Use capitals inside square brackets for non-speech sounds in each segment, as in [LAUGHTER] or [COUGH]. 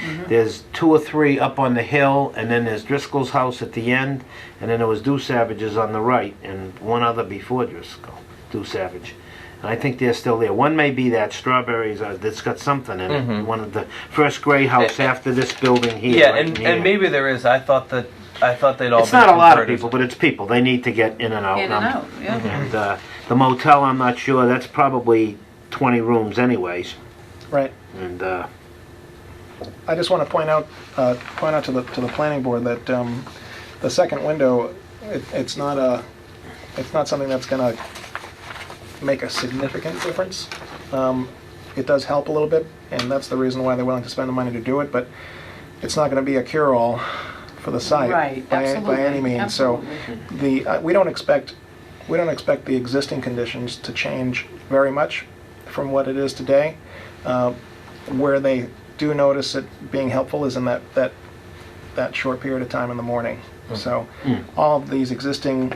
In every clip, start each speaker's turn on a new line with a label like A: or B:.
A: Mm-hmm.
B: There's two or three up on the hill, and then there's Driscoll's house at the end, and then there was Dew Savage's on the right, and one other before Driscoll, Dew Savage. And I think they're still there. One may be that Strawberries, uh, that's got something in it. One of the first gray house
A: Eh, eh.
B: after this building here.
A: Mm-hmm. Yeah,
B: right
A: and,
B: in
A: and
B: here.
A: maybe there is. I thought that I thought they'd all.
B: It's
A: been
B: not a lot of
A: converted.
B: people, but it's people. They need to get in and out.
C: In and
B: I'm-
C: out, yeah.
B: And uh, the motel, I'm not sure, that's probably 20 rooms anyways.
D: Right.
B: And uh,
D: I just want to point out, uh, point out to the, to the planning board that um, the second window, it- it's not a, it's not something that's going to make a significant difference. Um, It does help a little bit, and that's the reason why they're willing to spend the money to do it, but it's not going to be a cure-all for the site.
C: Right,
D: by- By any
C: absolutely,
D: means, so the, uh, we don't expect, we don't expect the existing conditions to change very much from what it is today. Uh, where they do notice it being helpful is in that, that, that short period of time in the morning.
B: Hmm.
D: So all of these existing.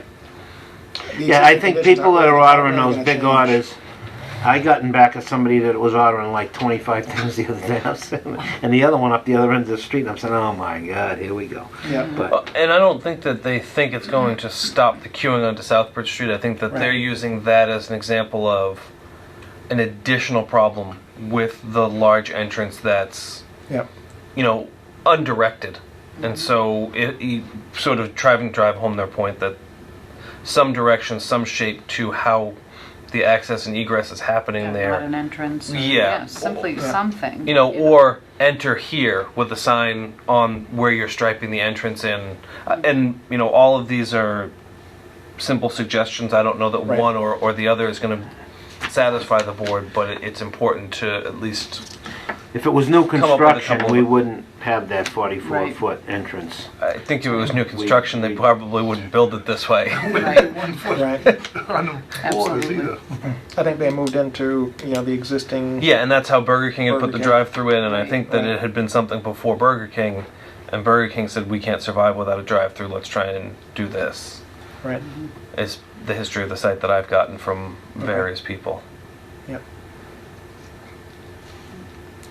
D: the
B: yeah, I think
D: existing conditions
B: people that are
D: really-
B: ordering
D: really
B: those
D: gonna
B: big
D: change.
B: orders, I gotten back at somebody that was ordering like 25 [LAUGHS] things the other day. I was sitting- and the other one up the other end of the street, and I'm saying, oh my God, here we go.
D: Yeah,
A: Uh,
B: But
A: And I don't think that they think it's going to stop the queuing onto Southbridge Street. I think that they're
D: Right.
A: using that as an example of an additional problem with the large entrance that's,
D: yeah,
A: you know, undirected.
B: Mm-hmm.
A: And so it, it sort of driving drive home their point that some direction, some shape to how the access and egress is happening there.
C: Not an entrance. or-
A: Yeah.
C: Simply
D: Yeah.
C: something.
A: you know, or enter here with a sign on where you're striping the entrance in. Uh, And, you know, all of these are simple suggestions. I don't know that
D: Right.
A: one or, or the other is going to satisfy the board, but it, it's important to at least,
B: if it was new
A: up with a
B: construction,
A: couple
B: we
A: of-
B: wouldn't have that 44
C: Right.
B: foot entrance.
A: I think if it was new construction, they
B: we-
A: probably wouldn't build it this
D: [LAUGHS]
A: way. [LAUGHS]
C: Right,
D: right.
E: on the borders
C: Absolutely.
E: either.
D: I think they moved into, you know, the existing.
A: yeah, and that's how Burger King had
D: Burger
A: put the
D: King.
A: drive through in, and I think that
D: Right.
A: it had been something before Burger King, and Burger King said, we can't survive without a drive through, let's try and do this.
D: Right,
A: is the history of the site that I've gotten from various people.
D: yep.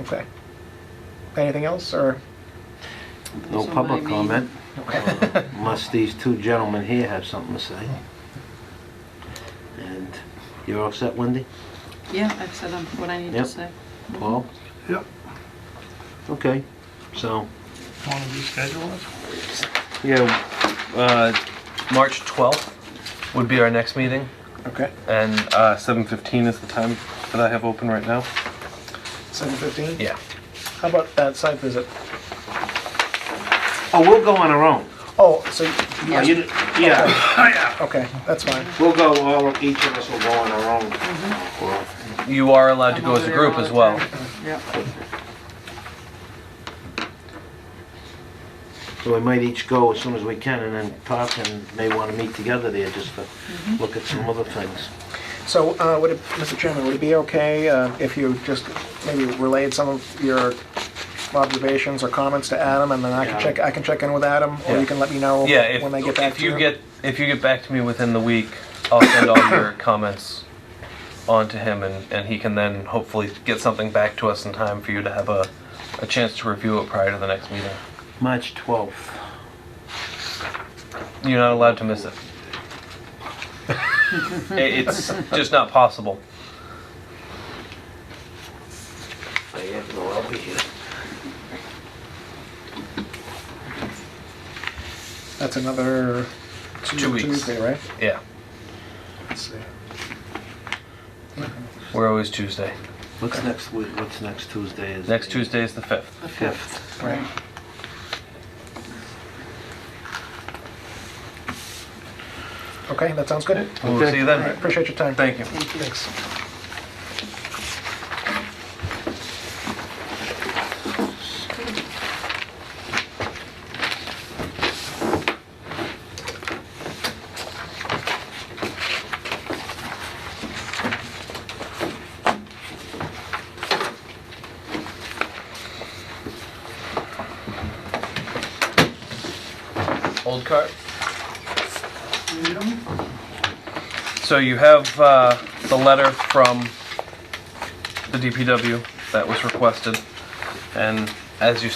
D: Okay. Anything else, or?
B: No
C: So
B: public
C: I mean- [LAUGHS]
B: comment, Uh, unless these two gentlemen here have something to say. And you're all set, Wendy?
C: Yeah, I've said um, what I need
B: Yep.
C: to say.
A: Oh,
B: Paul?
E: Yep.
B: Okay, so,
E: Want to reschedule it?
A: Yeah, uh, March 12th would be our next meeting,
D: Okay,
A: and uh, 7:15 is the time that I have open right now.
D: seven fifteen?
A: Yeah.
D: How about that site visit?
B: oh, we'll go on our own.
D: Oh, so,
B: Oh,
C: Yeah.
B: you d- Yeah,
D: okay, that's fine.
B: we'll go, all, each of us will go on our own. Well,
A: You are allowed to
C: I'm
A: go as
C: over
A: a
C: there
A: group
C: all
A: as
C: the
A: well.
C: time. Yep.
B: So we might each go as soon as we can and then talk and may want to meet together there just to look at some other things.
D: So, uh, would it, Mr. Chairman, would it be okay uh, if you just maybe relayed some of your observations or comments to Adam, and then I can
B: Yeah.
D: check, I can check in with Adam, or you
B: Yeah.
D: can let me know
A: Yeah, if,
D: when they get back
A: if
D: to
A: you
D: you?
A: get if you get back to me within the week, I'll send all [COUGHS] your comments on to him, and, and he can then hopefully get something back to us in time for you to have a, a chance to review it prior to the next meeting.
B: March 12th.
A: You're not allowed to miss it. I- it's just not possible.
B: I have no, I'll be here.
D: That's another
A: Two weeks.
D: Tuesday, right?
A: Yeah,
D: Let's see.
A: we're always Tuesday.
B: What's next week, what's next Tuesday is?
A: Next
B: the
A: Tuesday is the 5th.
B: 5th.
D: Right. Okay, that sounds good.
A: We'll
B: Okay.
A: see you
D: All right,
A: then.
D: appreciate your time.
A: Thank you.
C: Thank you.
D: Thanks.
A: Old cart. So you have uh, the letter from the DPW that was requested, and as you